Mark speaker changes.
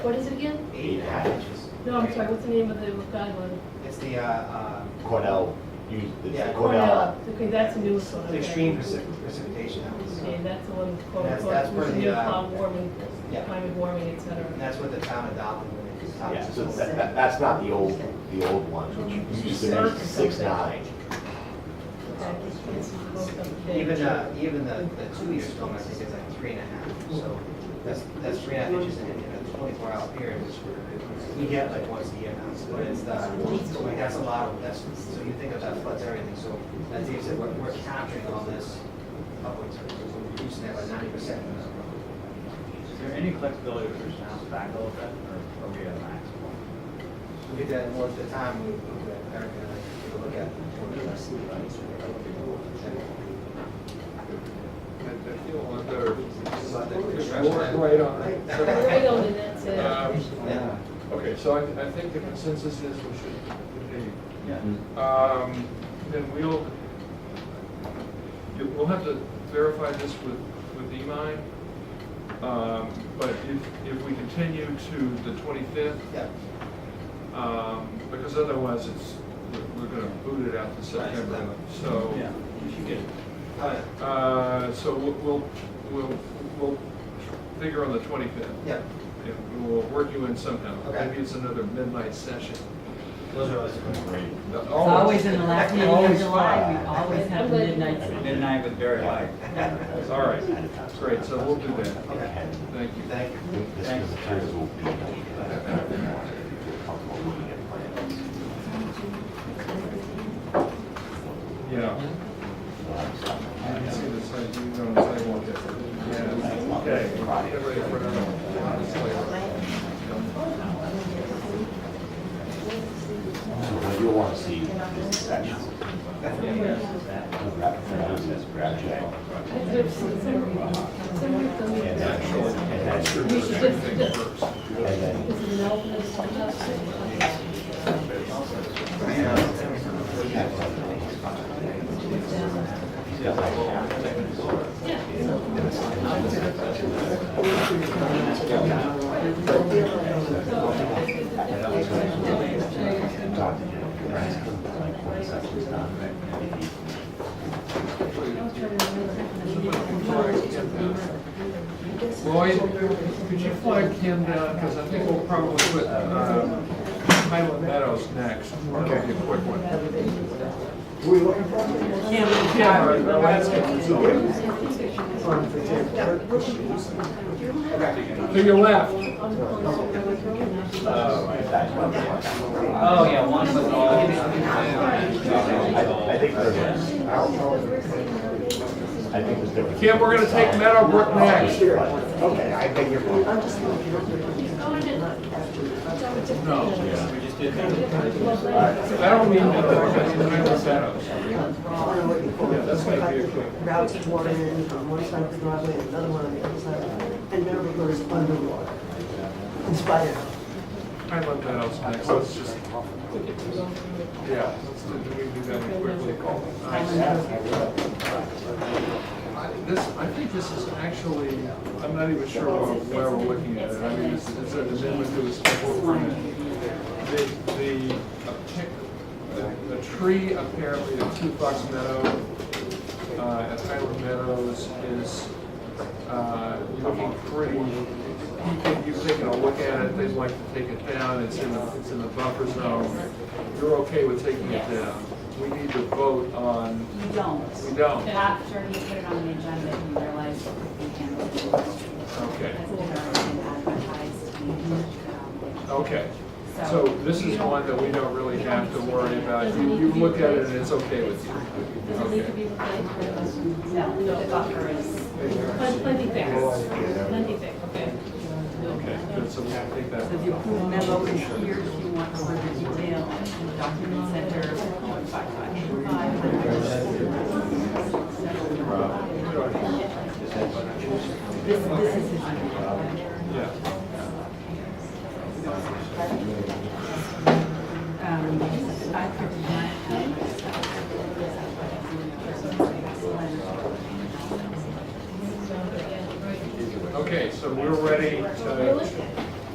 Speaker 1: What is it again?
Speaker 2: eight and a half inches.
Speaker 1: No, I'm sorry, what's the name of the guideline?
Speaker 2: It's the, uh,
Speaker 3: Cornell, you, it's
Speaker 2: Yeah.
Speaker 3: Cornell.
Speaker 1: Okay, that's a new one.
Speaker 2: uh, the extreme preci- precipitation that was,
Speaker 1: Okay,
Speaker 2: and
Speaker 1: that's the one, quote,
Speaker 2: That's-
Speaker 1: unquote,
Speaker 2: that's where
Speaker 1: which is
Speaker 2: the,
Speaker 1: new
Speaker 2: uh,
Speaker 1: climate warming,
Speaker 2: yeah.
Speaker 1: climate warming, et cetera.
Speaker 2: that's what the town adopted when it was
Speaker 3: Yeah, so
Speaker 2: adopted.
Speaker 3: that, that- that's not the old, the old ones, which used to be six nine.
Speaker 1: Okay, this is both of the-
Speaker 2: Even, uh, even the, the two-year storm, I think is like three and a half, so that's, that's three and a half inches in a- in a twenty-four hour period, which we're- we get like once a year now, so it's, uh, like, that's a lot of, that's, so you think of that floods everything, so as Dave said, we're, we're capturing all this upwards, we're reducing that by ninety percent.
Speaker 4: Is there any flexibility to push the house back a little bit, or are we at max?
Speaker 2: We'll get that more at the time, we, we'll get Eric and I take a look at.
Speaker 5: I feel a lot better.
Speaker 2: Right,
Speaker 5: Right on.
Speaker 1: So Where are we going in that, so-
Speaker 5: Um,
Speaker 2: Yeah.
Speaker 5: Okay, so I, I think the consensus is we should continue.
Speaker 4: Yeah.
Speaker 5: Um, Then we'll, you- we'll have to verify this with, with Imai. Um, But if, if we continue to the 25th,
Speaker 2: Yeah,
Speaker 5: um, because otherwise it's, we're- we're going to boot it out to September.
Speaker 2: September.
Speaker 5: So.
Speaker 4: Yeah, you should get it.
Speaker 2: all right,
Speaker 5: Uh, So we'll- we'll, we'll, we'll figure on the 25th.
Speaker 2: yeah,
Speaker 5: And we'll work you in somehow.
Speaker 2: Okay.
Speaker 5: Maybe it's another midnight session.
Speaker 2: those are always good.
Speaker 3: Great.
Speaker 6: It's always in the last meeting of
Speaker 4: Always
Speaker 6: July,
Speaker 3: fun.
Speaker 6: we always have the midnight session.
Speaker 4: Midnight with very light.
Speaker 5: All right. Great, so we'll do that.
Speaker 2: Okay.
Speaker 5: Thank you.
Speaker 2: Thank you.
Speaker 3: This is the materials will be. Comfortable looking at plans.
Speaker 5: Yeah. I can see the side, you know, the sidewalk there. Yeah. Okay. Get ready for another one. It's like-
Speaker 3: So what you'll want to see is sections. Wrap it around this project.
Speaker 1: Is there some- some- some- some-
Speaker 3: And then, and then,
Speaker 1: We should just-
Speaker 5: Everything
Speaker 1: just-
Speaker 5: first.
Speaker 3: and then
Speaker 1: this is an open, it's just-
Speaker 3: talk to him. Like, one section's done, maybe
Speaker 5: Lloyd, could you flag him down, because I think we'll probably put uh, Highland Meadows next, probably a quick one. Cameron, the landscape consultant. To your left.
Speaker 4: Oh, yeah, one with all.
Speaker 3: I think there's, I don't know. I think there's different.
Speaker 5: Kim, we're gonna take Meadowbrook next.
Speaker 3: Okay, I think you're.
Speaker 5: No. I don't mean Meadowbrook, I mean Highland Meadows. Yeah, that's gonna be a quick.
Speaker 7: routes water in from one side of the driveway and another one on the other side. And Meadow Brook is underwater. It's by
Speaker 5: Highland Meadows next, let's just. Yeah, let's do, do we do that quickly? I- This, I think this is actually, I'm not even sure where where we're looking at it. I mean, it's, it's an amendment to a special permit. The, the, a pic- the, the tree apparently at Two Fox Meadow, uh, at Highland Meadows is, uh, looking pretty. You can, you've taken a look at it, they'd like to take it down, it's in, the- it's in the buffer zone. You're okay with taking it
Speaker 8: Yes.
Speaker 5: down? We need to vote on,
Speaker 8: You don't.
Speaker 5: we don't.
Speaker 8: After you put it on the agenda, you realize you can't.
Speaker 5: Okay.
Speaker 8: Has been already advertised. um,
Speaker 5: Okay,
Speaker 8: So-
Speaker 5: so this is one that we don't really have to worry about. You, you look at it and it's okay with you.
Speaker 1: Does it need to be replaced?
Speaker 8: No, the buffer is.
Speaker 1: Plen- Plenty fixed, plenty fixed, okay.
Speaker 5: Okay, good, so we have to take that.
Speaker 6: So the approval memo is here if you want further detail, document center, one five five eight five. This, this is his email.
Speaker 5: Yeah.
Speaker 6: Um, I could not-
Speaker 5: Okay, so we're ready to